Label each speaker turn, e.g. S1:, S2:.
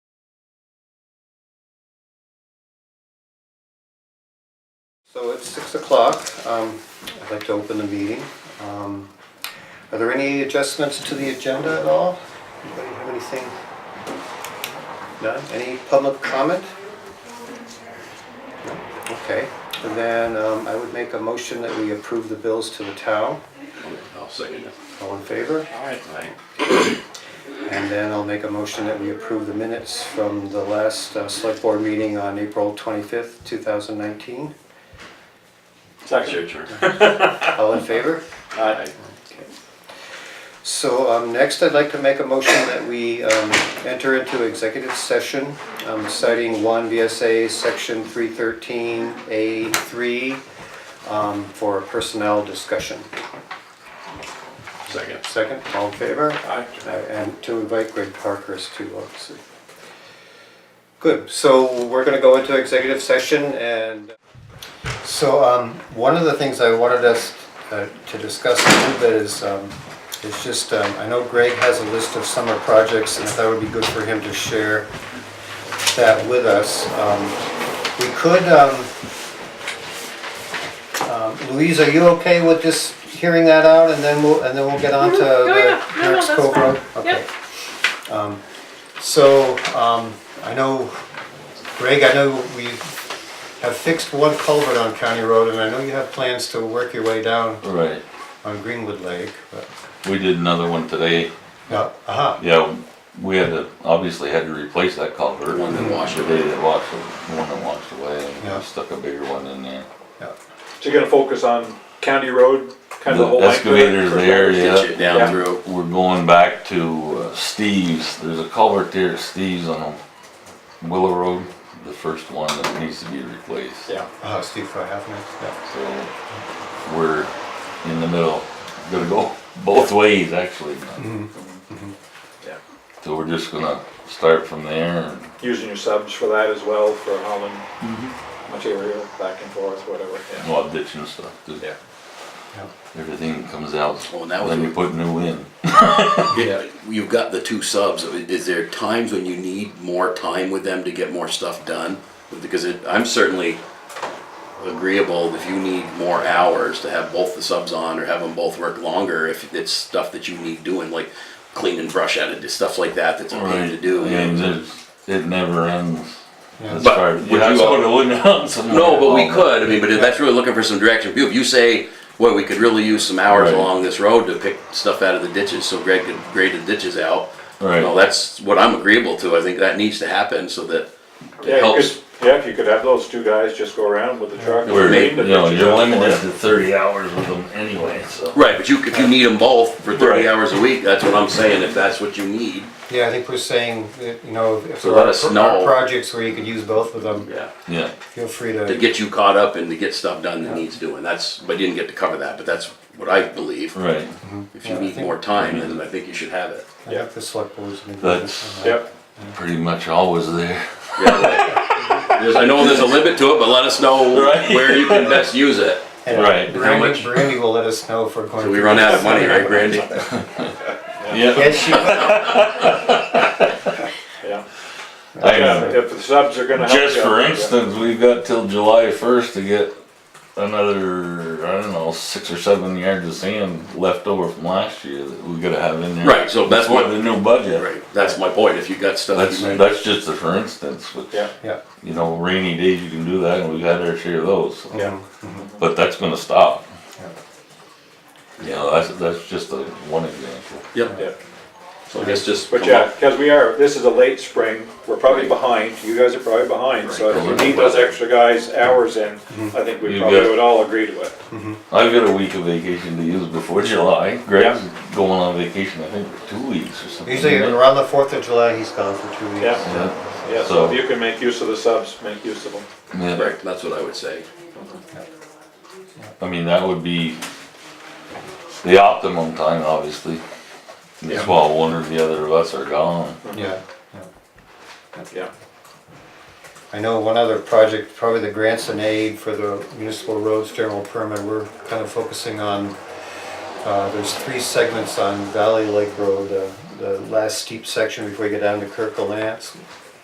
S1: So it's six o'clock. Um, I'd like to open the meeting. Um, Are there any adjustments to the agenda at all? Anybody have anything? None? Any public comment? No? Okay, and then um, I would make a motion that we approve the bills to the town.
S2: I'll second it.
S1: All in favor?
S2: All right.
S1: And then I'll make a motion that we approve the minutes from the last uh, select board meeting on April 25th, 2019.
S2: It's your turn.
S1: All in favor?
S2: Aye.
S1: Okay. So um, next, I'd like to make a motion that we um, enter into executive session um, citing one VSA Section 313A3 um, for personnel discussion.
S2: Second.
S1: Second, all in favor? Uh,
S2: Aye.
S1: And to invite Greg Parkers too, obviously. Good, so we're gonna go into executive session and. So, um, one of the things I wanted us uh, to discuss a little bit is, um, is just, um, I know Greg has a list of summer projects and I thought it would be good for him to share that with us. Um, We could, um, um, Louise, are you okay with just hearing that out and then we'll, and then we'll get on to
S3: Mhm. No, yeah.
S1: the
S3: No, no,
S1: next
S3: that's
S1: Cobra?
S3: fine.
S1: Okay. Um, So, um, I know, Greg, I know we have fixed one culvert on County Road and I know you have plans to work your way down
S4: Right,
S1: on Greenwood Lake, but,
S4: we did another one today,
S1: no, uh-huh,
S4: yeah, we had to, obviously had to replace that culvert. One that washed away. That washed, the one that washed away, and
S1: Yeah.
S4: we stuck a bigger one in there.
S1: yeah. Uh-huh,
S5: So you're gonna focus on County Road, kind of the whole
S4: The
S5: length of it?
S4: excavator's there,
S2: Get you
S4: yeah,
S2: down
S5: Yeah.
S2: through.
S4: we're going back to uh, Steve's, there's a culvert there at Steve's on Willow Road, the first one that needs to be replaced.
S5: Yeah,
S1: Uh, Steve Fry, half minute, yeah.
S4: So, we're in the middle, gonna go both ways, actually.
S5: Yeah.
S4: So we're just gonna start from there and
S5: using your subs for that as well, for hauling material back and forth, whatever, yeah.
S4: Well, ditch and stuff, too.
S5: Yeah.
S4: Everything comes out,
S2: Well, now
S4: then you put new in.
S2: Yeah, You've got the two subs. Is there times when you need more time with them to get more stuff done? Because it, I'm certainly agreeable if you need more hours to have both the subs on or have them both work longer if it's stuff that you need doing, like clean and brush out of stuff like that that's a pain to do.
S4: And there's, it never ends.
S1: Yeah.
S4: That's
S2: But
S4: part,
S2: would
S4: you have
S2: you-
S4: to put a wooden out somewhere.
S2: No, but we
S4: Oh,
S2: could, I mean, but if that's really looking for some direction, if you say, well, we could really use some hours
S4: Right.
S2: along this road to pick stuff out of the ditches, so Greg could grade the ditches out.
S4: Right.
S2: No, that's what I'm agreeable to, I think that needs to happen so that it
S5: Yeah, you
S2: helps.
S5: could, yeah, if you could have those two guys just go around with the truck. and
S4: We're,
S5: clean
S4: you
S5: the
S4: know,
S5: ditches
S4: you're
S5: up for
S4: limited to
S5: you.
S4: thirty hours with them anyway, so.
S2: Right, but you, if you need them both for
S4: Right.
S2: thirty hours a week, that's what I'm saying, if that's what you need,
S1: Yeah, I think we're saying that, you know, if
S2: So
S1: there
S2: let
S1: are
S2: us
S1: pro-
S2: know.
S1: are projects where you could use both of them,
S2: yeah,
S4: Yeah,
S1: feel free
S2: to
S1: to,
S2: get you caught up and to get stuff done that needs doing, that's, but you didn't get to cover that, but that's what I believe.
S4: right,
S2: If
S1: Yeah, I
S2: you need
S1: think-
S2: more time, then I think you should have it.
S1: I think the select board's. gonna do
S4: That's-
S1: this.
S5: Yep,
S4: pretty much always there.
S2: There's- I know there's a limit to it, but let us know
S4: Right.
S2: where you can best use it.
S1: And
S4: Right.
S2: How
S1: Brandy,
S2: much-
S1: Brandy will let us know if we're going.
S2: So we
S1: to-
S2: run out of money, right, Brandy?
S4: Yeah,
S1: Yes, she will.
S5: yeah.
S4: I
S5: Yeah,
S4: know.
S5: if the subs are gonna help you.
S4: Just for
S5: out, yeah.
S4: instance, we've got till July first to get another, I don't know, six or seven yards of sand left over from last year that we gotta have in there.
S2: Right, so that's
S4: For
S2: what-
S4: the new budget.
S2: Right, that's my point, if you got stuff.
S4: That's,
S2: you-
S4: that's just a for instance, which,
S5: Yeah,
S1: Yeah,
S4: you know, rainy days you can do that, and we've had our share of those, so-
S5: yeah,
S4: but that's gonna stop.
S1: Yeah.
S4: You know, that's, that's just a one example.
S2: Yep,
S5: yeah.
S2: so I guess just.
S5: But
S2: come
S5: yeah,
S2: up-
S5: because we are, this is a late spring, we're probably behind, you guys are probably behind, so if you
S4: Right.
S5: need those extra guys hours in, I think we
S4: You
S5: probably
S4: got-
S5: would all agree to it.
S4: I've got a week of vacation to use before July, Greg's going on vacation, I think, for two weeks or something.
S1: usually
S2: Mm-hmm.
S4: isn't it?
S1: around the Fourth of July, he's gone for two weeks.
S5: Yeah.
S4: Yeah,
S5: Yeah, so
S4: So-
S5: if you can make use of the subs, make use of them.
S4: yeah.
S2: Right, that's what I would say.
S4: I mean, that would be the optimum time, obviously. That's why one or the other of us are gone.
S1: Yeah, yeah.
S5: Yeah,
S1: I know one other project, probably the grants and aid for the municipal roads general permit, we're kind of focusing on, uh, there's three segments on Valley Lake Road, uh, the last steep section before you get down to Kirkland Lance,